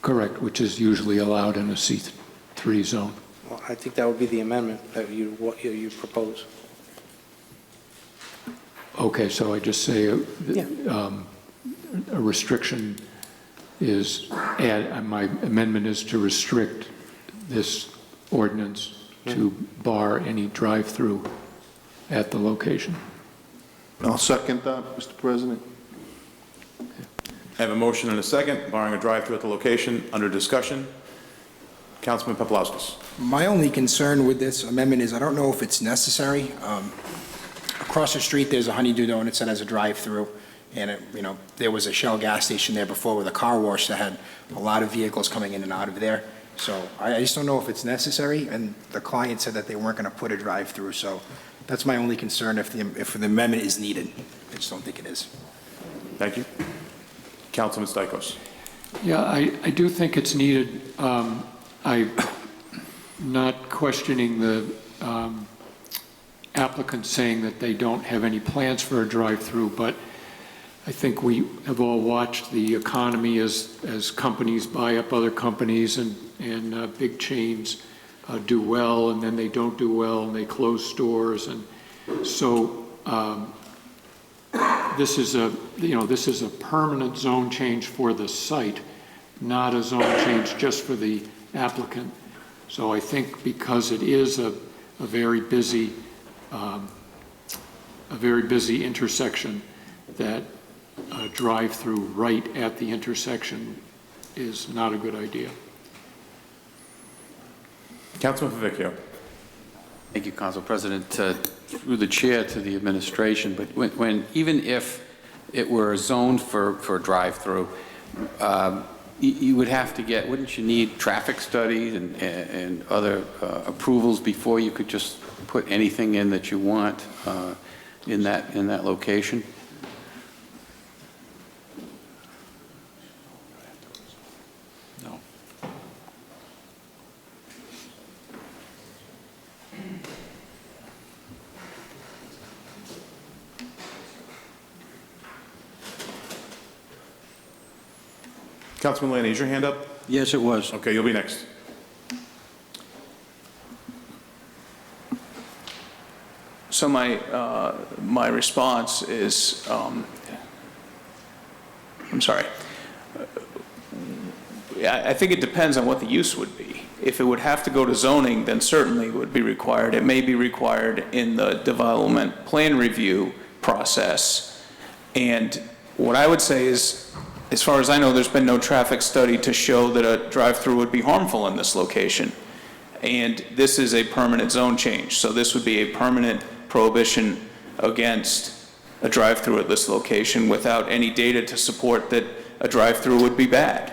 Correct, which is usually allowed in a C3 zone. Well, I think that would be the amendment that you, what you- you propose. Okay, so I just say, uh, Yeah. um, a restriction is, add- uh, my amendment is to restrict this ordinance to bar any drive-through at the location. I'll second that, Mr. President. I have a motion and a second, barring a drive-through at the location, under discussion. Councilman Paplaskas. My only concern with this amendment is I don't know if it's necessary. Um, Across the street, there's a Honeydew Donuts that has a drive-through, and, it- you know, there was a Shell gas station there before with a car wash that had a lot of vehicles coming in and out of there. So I I just don't know if it's necessary, and the client said that they weren't going to put a drive-through, so that's my only concern if the if the amendment is needed. I just don't think it is. Thank you. Councilman Stichels. Yeah, I, I do think it's needed. Um, I'm not questioning the um, applicant saying that they don't have any plans for a drive-through, but I think we have all watched the economy as, as companies buy up other companies and, and uh, big chains uh, do well, and then they don't do well, and they close stores, and so um, this is a, you know, this is a permanent zone change for the site, not a zone change just for the applicant. So I think because it is a, a very busy, um, a very busy intersection, that a drive-through right at the intersection is not a good idea. Councilman Favicchio. Thank you, Council President. Uh, Through the chair to the administration, but when- when, even if it were zoned for, for drive-through, um, you- you would have to get, wouldn't you need traffic studies and, and and other uh, approvals before you could just put anything in that you want uh, in that, in that location? No. Councilman Lanning, is your hand up? Yes, it was. Okay, you'll be next. So my, uh, my response is, um, I'm sorry. I, I think it depends on what the use would be. If it would have to go to zoning, then certainly it would be required. It may be required in the development plan review process. And what I would say is, as far as I know, there's been no traffic study to show that a drive-through would be harmful in this location. And this is a permanent zone change, so this would be a permanent prohibition against a drive-through at this location without any data to support that a drive-through would be bad.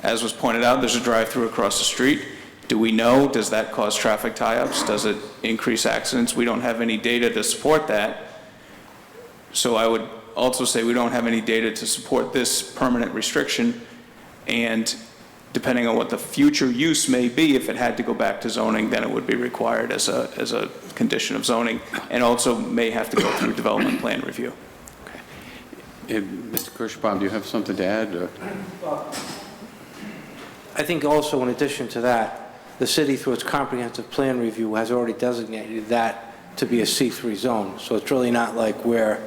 As was pointed out, there's a drive-through across the street. Do we know, does that cause traffic tie-ups? Does it increase accidents? We don't have any data to support that. So I would also say we don't have any data to support this permanent restriction. And depending on what the future use may be, if it had to go back to zoning, then it would be required as a, as a condition of zoning, and also may have to go through development plan review. And Mr. Kirschbaum, do you have something to add? or- I think also in addition to that, the city through its comprehensive plan review has already designated that to be a C3 zone. So it's really not like we're,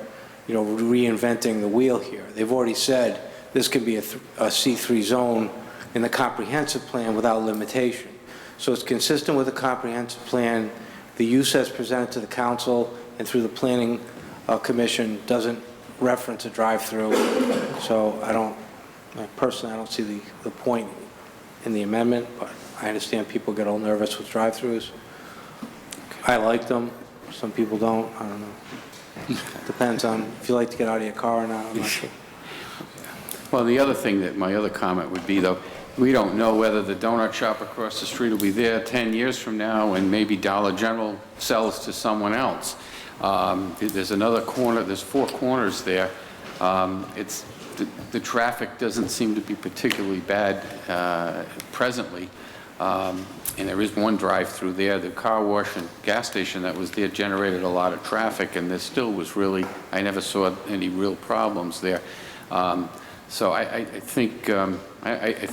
you know, reinventing the wheel here. They've already said this can be a th- a C3 zone in the comprehensive plan without limitation. So it's consistent with the comprehensive plan. The use as presented to the council and through the planning uh, commission doesn't reference a drive-through. So I don't, personally, I don't see the, the point in the amendment, but I understand people get all nervous with drive-throughs. I like them, some people don't, I don't know. Depends on if you like to get out of your car or not, I'm not sure. Well, the other thing that, my other comment would be, though, we don't know whether the donut shop across the street will be there 10 years from now, and maybe Dollar General sells to someone else. Um, There's another corner, there's four corners there. Um, It's, the- the traffic doesn't seem to be particularly bad uh, presently, Um, and there is one drive-through there. The car wash and gas station that was there generated a lot of traffic, and there still was really, I never saw any real problems there. Um, so I, I I think, um, I, I, I th-